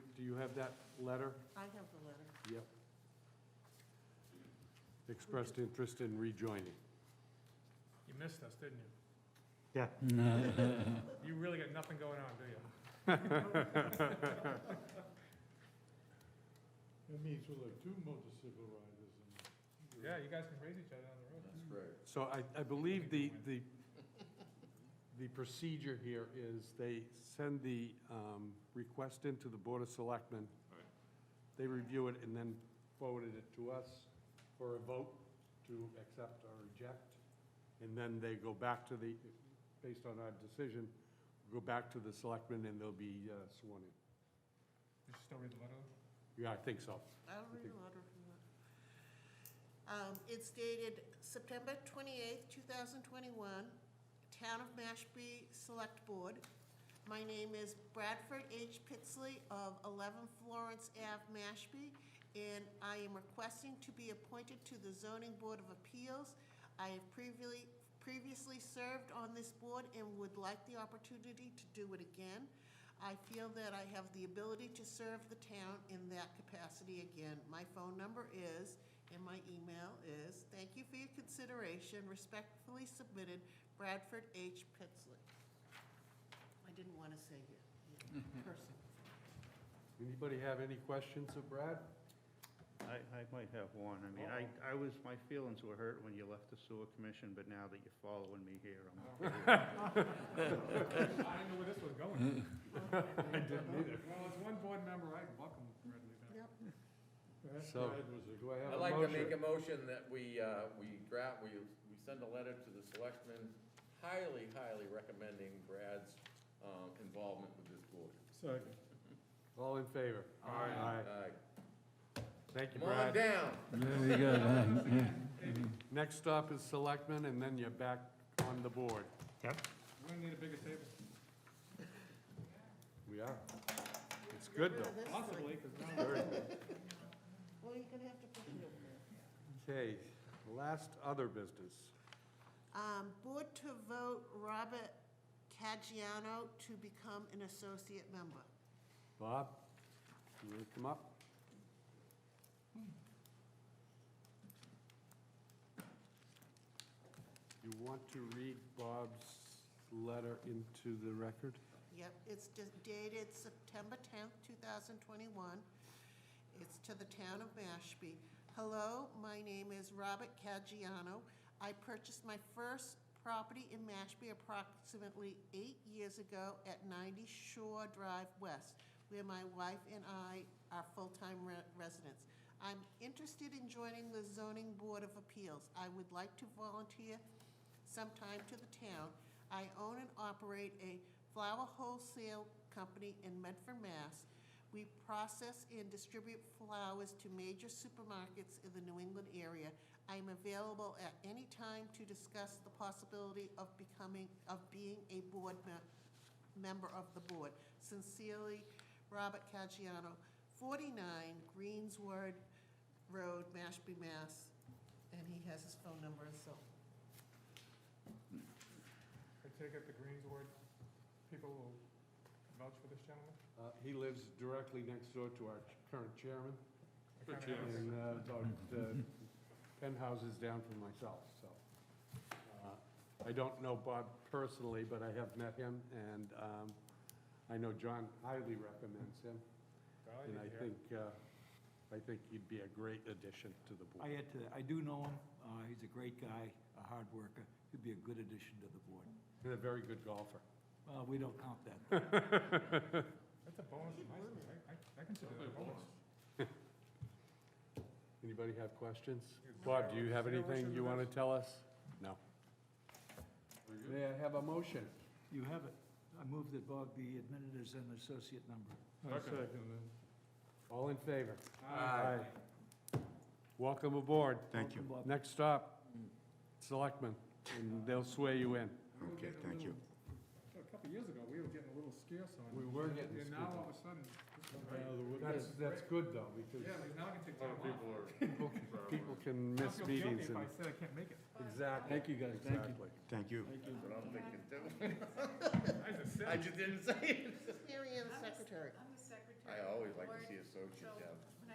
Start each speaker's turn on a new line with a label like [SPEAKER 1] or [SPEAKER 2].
[SPEAKER 1] You have that letter?
[SPEAKER 2] I have the letter.
[SPEAKER 1] Yep. Expressed interest in rejoining.
[SPEAKER 3] You missed us, didn't you?
[SPEAKER 1] Yeah.
[SPEAKER 3] You really got nothing going on, do you?
[SPEAKER 4] That means we'll have two motorcycle riders and.
[SPEAKER 3] Yeah, you guys can raise each other on the road.
[SPEAKER 5] That's right.
[SPEAKER 1] So I, I believe the, the, the procedure here is they send the um, request into the Board of Selectmen.
[SPEAKER 5] Right.
[SPEAKER 1] They review it and then forwarded it to us for a vote to accept or reject. And then they go back to the, based on our decision, go back to the Selectmen and they'll be uh, sworn in.
[SPEAKER 3] Did you still read the letter?
[SPEAKER 1] Yeah, I think so.
[SPEAKER 2] I'll read the letter if you want. Um, It's dated September 28th, 2021, Town of Mashpee Select Board. My name is Bradford H. Pitsley of 11 Florence Ave, Mashpee, and I am requesting to be appointed to the Zoning Board of Appeals. I have previously, previously served on this board and would like the opportunity to do it again. I feel that I have the ability to serve the town in that capacity again. My phone number is, and my email is, thank you for your consideration, respectfully submitted, Bradford H. Pitsley. I didn't want to say your your person.
[SPEAKER 1] Anybody have any questions of Brad?
[SPEAKER 6] I, I might have one. I mean, I, I was, my feelings were hurt when you left the sewer commission, but now that you're following me here, I'm okay.
[SPEAKER 3] I didn't know where this was going.
[SPEAKER 1] I didn't either.
[SPEAKER 3] Well, as one board member, I'd welcome Ridley back.
[SPEAKER 2] Yep.
[SPEAKER 1] So, do I have a motion?
[SPEAKER 5] I'd like to make a motion that we, uh, we draft, we, we send a letter to the selectmen highly, highly recommending Brad's, um, involvement with this board.
[SPEAKER 4] Second.
[SPEAKER 1] All in favor? Aye.
[SPEAKER 5] Aye.
[SPEAKER 1] Thank you,
[SPEAKER 5] Come on
[SPEAKER 1] Brad.
[SPEAKER 5] down.
[SPEAKER 7] There you go, huh?
[SPEAKER 1] Next stop is selectmen, and then you're back on the board.
[SPEAKER 3] We're gonna need a bigger table,
[SPEAKER 1] We are. It's good,
[SPEAKER 2] Remember
[SPEAKER 1] though.
[SPEAKER 2] this?
[SPEAKER 3] possibly, because now
[SPEAKER 1] Very good.
[SPEAKER 2] Well, you're going to have to put it over there.
[SPEAKER 1] Okay, last other business.
[SPEAKER 2] Um, Board to vote Robert Caggiano to become an associate member.
[SPEAKER 1] Bob, you want to come up? You want to read Bob's letter into the record?
[SPEAKER 2] Yep, it's just dated September 10th, 2021. It's to the town of Mashpee. Hello, my name is Robert Caggiano. I purchased my first property in Mashpee approximately eight years ago at 90 Shore Drive West, where my wife and I are full-time re- residents. I'm interested in joining the Zoning Board of Appeals. I would like to volunteer sometime to the town. I own and operate a flower wholesale company in Medford, Mass. We process and distribute flowers to major supermarkets in the New England area. I am available at any time to discuss the possibility of becoming, of being a board me- member of the board. Sincerely, Robert Caggiano, 49 Greensward Road, Mashpee, Mass. And he has his phone number, so
[SPEAKER 3] I take it the Greens word, people will vouch for this gentleman.
[SPEAKER 1] Uh, He lives directly next door to our current chairman.
[SPEAKER 3] I
[SPEAKER 4] Good
[SPEAKER 3] kinda
[SPEAKER 4] chance.
[SPEAKER 3] asked.
[SPEAKER 1] and uh, about uh, ten houses down from myself, so. uh, I don't know Bob personally, but I have met him, and um, I know John highly recommends him,
[SPEAKER 3] Well,
[SPEAKER 1] and I
[SPEAKER 3] you hear.
[SPEAKER 1] think, uh, I think he'd be a great addition to the
[SPEAKER 7] I
[SPEAKER 1] board.
[SPEAKER 7] had to, I do know him. Uh, he's a great guy, a hard worker. He'd be a good addition to the board.
[SPEAKER 1] And a very good golfer.
[SPEAKER 7] Well, we don't count that.
[SPEAKER 3] That's a bonus in my school, I, I- I consider that a bonus.
[SPEAKER 1] Anybody have questions? Bob, do you have
[SPEAKER 3] Zero issue
[SPEAKER 1] anything you
[SPEAKER 3] with
[SPEAKER 1] want
[SPEAKER 3] this.
[SPEAKER 1] to tell us? No. May I have a motion?
[SPEAKER 7] You have it. I move that Bob be admitted as an associate member.
[SPEAKER 4] I second
[SPEAKER 1] All in favor?
[SPEAKER 3] Aye.
[SPEAKER 1] Welcome aboard.
[SPEAKER 7] Thank you. Welcome, Bob.
[SPEAKER 1] Next stop, selectmen, and they'll swear you in.
[SPEAKER 3] Okay, thank you. A couple years ago, we were getting a little scarce on.
[SPEAKER 1] We were getting
[SPEAKER 3] And now
[SPEAKER 1] scared.
[SPEAKER 3] all of a sudden, this is
[SPEAKER 4] that.
[SPEAKER 3] great.
[SPEAKER 4] Now the wood-
[SPEAKER 1] That's, that's good though,
[SPEAKER 3] Yeah,
[SPEAKER 1] because
[SPEAKER 3] like now I can take time off.
[SPEAKER 1] people, people can miss
[SPEAKER 3] I feel guilty
[SPEAKER 1] meetings
[SPEAKER 3] if I
[SPEAKER 1] and.
[SPEAKER 3] said I can't make it.
[SPEAKER 1] Exactly.
[SPEAKER 4] Thank you, guys. Thank you.
[SPEAKER 1] Exactly.
[SPEAKER 5] That's what I'm thinking too.
[SPEAKER 3] I just said.
[SPEAKER 5] I just didn't say it.
[SPEAKER 2] Mary Ann, the secretary.
[SPEAKER 5] I always